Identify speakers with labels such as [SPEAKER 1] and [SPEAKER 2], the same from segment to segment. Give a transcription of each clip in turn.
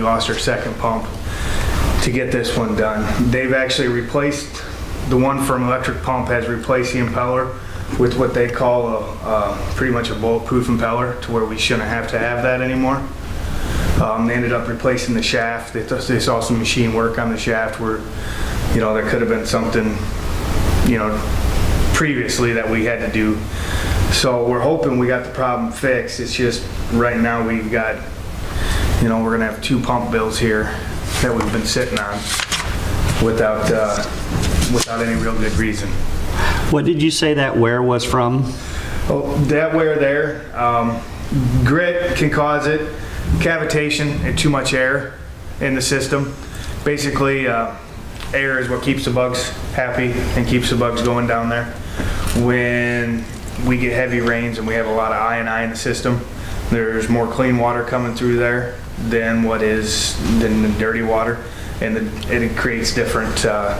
[SPEAKER 1] We lost our second pump to get this one done. They've actually replaced, the one from electric pump has replaced the impeller with what they call a, uh, pretty much a bulletproof impeller to where we shouldn't have to have that anymore. Um, they ended up replacing the shaft. They, th- they saw some machine work on the shaft where, you know, there could have been something, you know, previously that we had to do. So we're hoping we got the problem fixed. It's just, right now, we've got, you know, we're gonna have two pump bills here that we've been sitting on without, uh, without any real good reason.
[SPEAKER 2] What did you say that where was from?
[SPEAKER 1] Oh, that way or there. Um, grit can cause it, cavitation and too much air in the system. Basically, uh, air is what keeps the bugs happy and keeps the bugs going down there. When we get heavy rains and we have a lot of I in the system, there's more clean water coming through there than what is than the dirty water, and the, it creates different. Uh,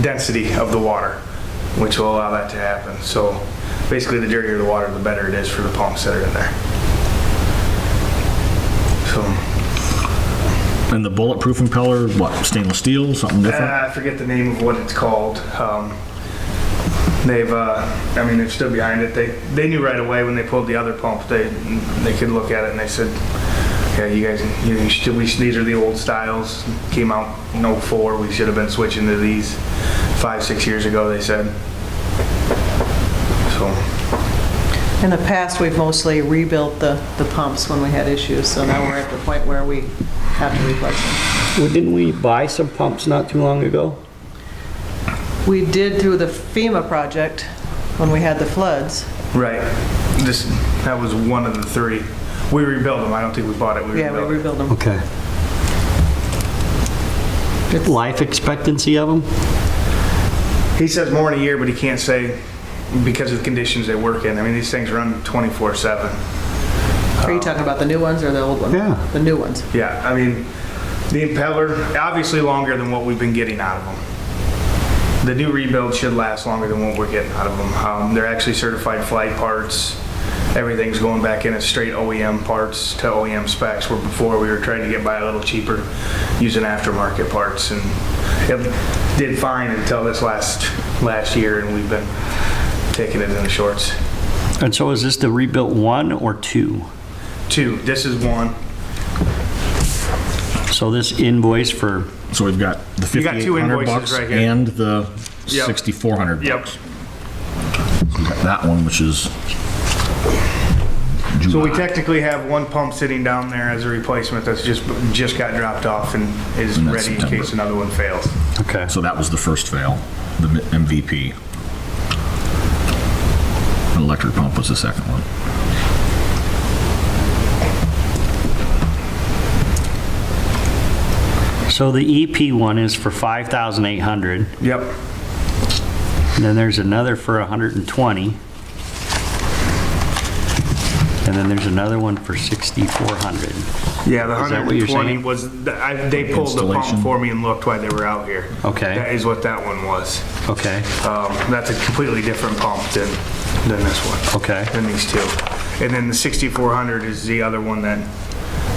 [SPEAKER 1] density of the water, which will allow that to happen. So basically, the dirtier the water, the better it is for the pumps that are in there. So,
[SPEAKER 3] And the bulletproof impeller, what, stainless steel, something different?
[SPEAKER 1] uh, I forget the name of what it's called. Um, They've, uh, I mean, they're still behind it. They, they knew right away when they pulled the other pump, they, they could look at it and they said, yeah, you guys, you you should, we, these are the old styles, came out in '04, we should have been switching to these five, six years ago, they said. So,
[SPEAKER 4] In the past, we've mostly rebuilt the, the pumps when we had issues, so now we're at the point where we have to replace them.
[SPEAKER 2] Well, Didn't we buy some pumps not too long ago?
[SPEAKER 4] We did through the FEMA project when we had the floods.
[SPEAKER 1] Right. This, that was one of the three. We rebuilt them. I don't think we bought it. We
[SPEAKER 4] Yeah, we
[SPEAKER 1] rebuilt it.
[SPEAKER 4] rebuilt them.
[SPEAKER 2] Okay. Life expectancy of them?
[SPEAKER 1] He says more in a year, but he can't say because of the conditions they work in. I mean, these things run 24/7.
[SPEAKER 4] Are you talking about the new ones or the old ones?
[SPEAKER 2] Yeah.
[SPEAKER 4] The new ones.
[SPEAKER 1] Yeah, I mean, the impeller, obviously longer than what we've been getting out of them. The new rebuild should last longer than what we're getting out of them. Um, They're actually certified flight parts. Everything's going back in as straight OEM parts to OEM specs, where before we were trying to get by a little cheaper using aftermarket parts. And it did fine until this last, last year, and we've been taking it in the shorts.
[SPEAKER 2] And so is this the rebuilt one or two?
[SPEAKER 1] Two, this is one.
[SPEAKER 2] So this invoice for,
[SPEAKER 3] So we've got the
[SPEAKER 1] You got two
[SPEAKER 3] 5,800
[SPEAKER 1] invoices
[SPEAKER 3] bucks
[SPEAKER 1] right here.
[SPEAKER 3] and the
[SPEAKER 1] Yep.
[SPEAKER 3] 6,400
[SPEAKER 1] Yep.
[SPEAKER 3] bucks. We've got That one, which is
[SPEAKER 1] So we technically have one pump sitting down there as a replacement that's just, just got dropped off and is
[SPEAKER 3] And that's
[SPEAKER 1] ready in
[SPEAKER 3] September.
[SPEAKER 1] case another one fails.
[SPEAKER 2] okay.
[SPEAKER 3] So that was the first fail, the M- MVP. An Electric pump was the second one.
[SPEAKER 2] So the EP one is for 5,800,
[SPEAKER 1] Yep.
[SPEAKER 2] and then there's another for 120. And then there's another one for 6,400.
[SPEAKER 1] Yeah, the
[SPEAKER 2] Is that what you're
[SPEAKER 1] 120
[SPEAKER 2] saying?
[SPEAKER 1] was, th- I- they pulled the pump
[SPEAKER 3] Installation.
[SPEAKER 1] for me and looked while they were out here.
[SPEAKER 2] Okay.
[SPEAKER 1] That is what that one was.
[SPEAKER 2] Okay,
[SPEAKER 1] Um, That's a completely different pump than, than this one.
[SPEAKER 2] Okay.
[SPEAKER 1] Than these two. And then the 6400 is the other one that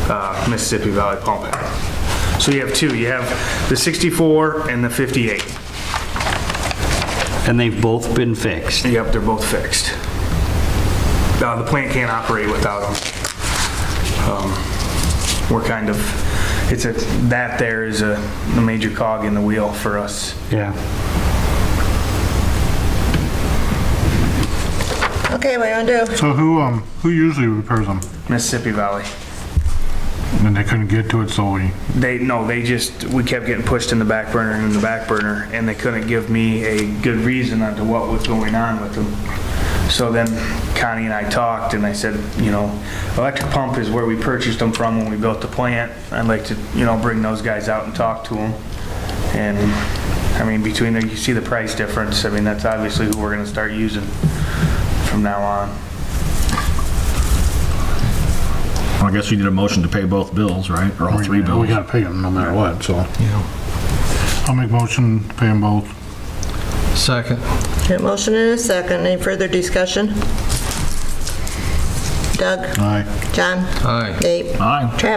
[SPEAKER 1] uh, Mississippi Valley Pump had. So you have two, you have the 64 and the 58.
[SPEAKER 2] and they've both been fixed.
[SPEAKER 1] Yep, they're both fixed. Uh, the plant can't operate without them. Um, We're kind of, it's a, that there is a, a major cog in the wheel for us.
[SPEAKER 2] Yeah.
[SPEAKER 5] Okay, what do you want to do?
[SPEAKER 6] So who, um, who usually repairs them?
[SPEAKER 1] Mississippi Valley.
[SPEAKER 6] And they couldn't get to it, so we,
[SPEAKER 1] They, no, they just, we kept getting pushed in the back burner and in the back burner, and they couldn't give me a good reason onto what was going on with them. So then Connie and I talked, and I said, you know, electric pump is where we purchased them from when we built the plant. I'd like to, you know, bring those guys out and talk to them. And, I mean, between there, you see the price difference. I mean, that's obviously who we're gonna start using from now on.
[SPEAKER 3] Well, I guess we need a motion to pay both bills, right? Or all three
[SPEAKER 6] we
[SPEAKER 3] bills?
[SPEAKER 6] gotta pay them no matter what, so. I'll make motion, to pay them both.
[SPEAKER 7] Second.
[SPEAKER 5] Okay, motion and a second. Any further discussion? Doug?
[SPEAKER 6] Aye.
[SPEAKER 5] John?
[SPEAKER 7] Aye.
[SPEAKER 5] Dave?
[SPEAKER 3] Aye.
[SPEAKER 5] Travis?